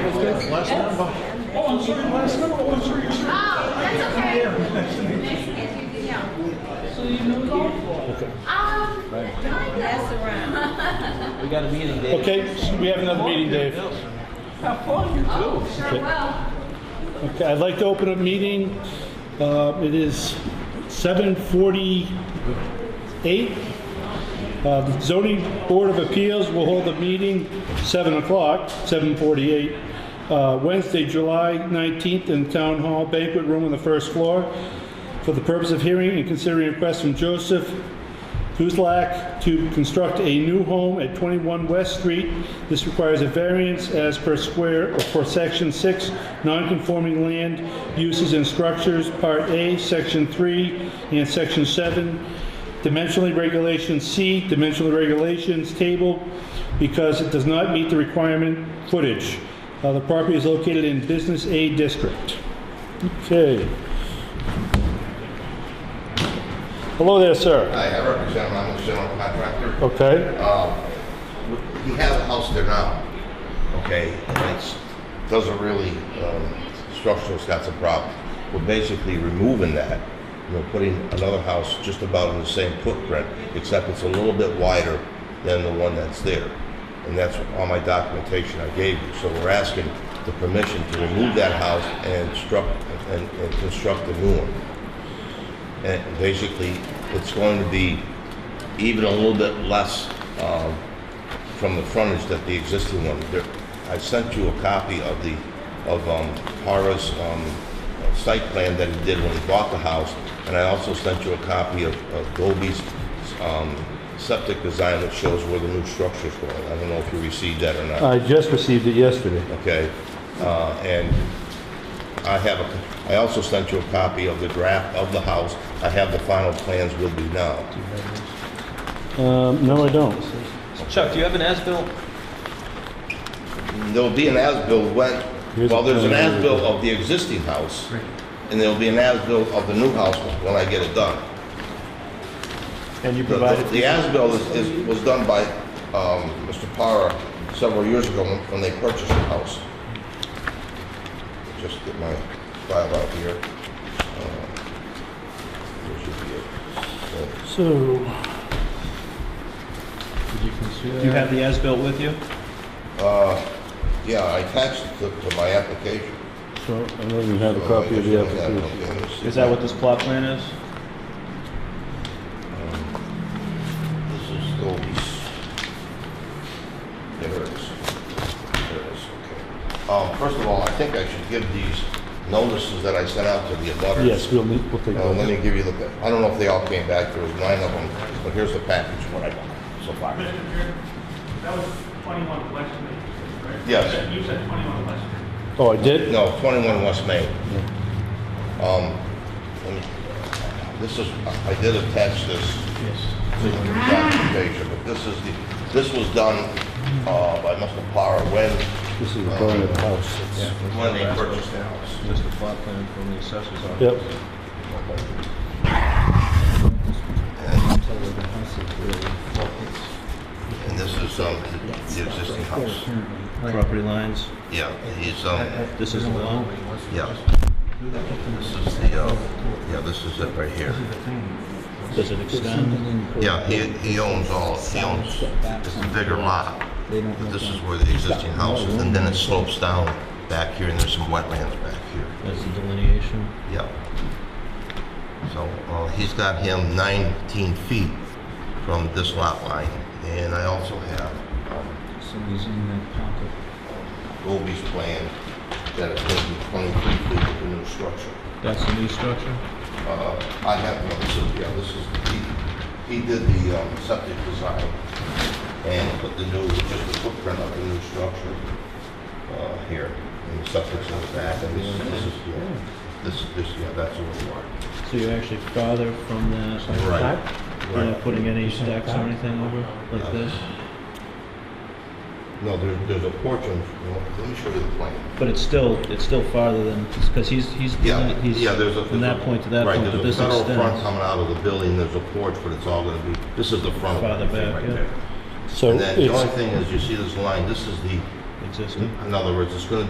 Yes, last number. Oh, I'm sorry, last number, oh, I'm sorry, you're sorry. Oh, that's okay. Yeah. Okay. Um, kind of. around. We got a meeting, Dave. Okay, so we have another meeting, Dave. Oh, sure Okay. will. Okay, I'd like to open a meeting. Uh, It is 7:48. Um, Zoning Board of Appeals will hold a meeting 7 o'clock, 7:48, uh, Wednesday, July 19th, in Town Hall Banquet Room on the first floor for the purpose of hearing and considering requests from Joseph Guzlak to construct a new home at 21 West Street. This requires a variance as per square, or for Section 6, non-conforming land uses and structures, Part A, Section 3, and Section 7. Dimensionally regulations, C, dimensional regulations table, because it does not meet the requirement footage. Uh, The property is located in Business A District. Okay. Hello there, sir. Hi, I represent Ramos General Contractor. Okay. We have a house there now, okay, and it's, doesn't really, um, structural that's a problem. We're basically removing that, we're putting another house just about in the same footprint, except it's a little bit wider than the one that's there. And that's all my documentation I gave you, so we're asking the permission to remove that house and construct, and, and construct a new one. And basically, it's going to be even a little bit less um, from the frontage that the existing one. There- I sent you a copy of the, of um, Hara's um, site plan that he did when he bought the house, and I also sent you a copy of of Goby's um, septic design that shows where the new structure's going. I don't know if you received that or not I just received it yesterday. okay? Uh, And I have, a. I also sent you a copy of the draft of the house. I have the final plans with me now. Um, no, I don't. Chuck, do you have an as-built? There'll be an as-built when, Here's well, the there's an plan. as-built of the existing house, and there'll be an as-built of the new house when I get it done. And you The- The the as-built is- is, was done by um, Mr. Parra several years ago when when they purchased the house. Just get my file out here. Uh, there should be it. Uh, So, Do you have the as-built with you? Uh, Yeah, I attached it to, to my application. so I don't even have a copy of the application. Is that what this plot plan is? This is Goldie's. There it is. There it is, okay. Um, first of all, I think I should give these notices that I sent out to the abutters. Yes, we'll, need- we'll take Uh, let that. me give you the, I don't know if they all came back, there was nine of them, but here's the package, what I got so far. Mr. Chair, that was 21 West Main, right? Yes. You said 21 West Main. Oh, I did? No, 21 West Main. Um, let me- this is, I I did attach this Yes. to the documentation, but this is the, this was done, uh, by Mr. Parra when, This is the front of the house. when they purchased the house. Just the plot plan from the assessor's office. Yep. And this is, um, the existing house. Property lines, Yeah, he's, um, this is the lot. yeah. This is the, uh, yeah, this is it right here. Does it extend? Yeah, he, he owns all, he owns, it's a bigger lot. But this is where the existing house is, and then it slopes down back here, and there's some wetlands back here. That's the delineation. Yeah. So, uh, he's got him 19 feet from this lot line, and I also have um, Goldie's plan that it's going to be 23 feet of the new structure. That's the new structure? Uh, I have one, so, yeah, this is, he, he did the um, septic design and put the new, just the footprint of the new structure uh, here. And the septic's in the back, and this, this is, yeah, this, this, yeah, that's what we want. So you're actually farther from the side? You're not putting any stacks or anything over like this? No, there, there's a porch in, well, let me show you the plan. But it's still, it's still farther than, because he's, he's, Yeah, he's yeah, there's a. from that point to that right, point, but this There's a federal front extends. coming out of the building, there's a porch, but it's all gonna be, this is the front. of Farther everything back, right yeah. there. So And then the it's, only thing is, you see this line, this is the, Existing. in other words, it's gonna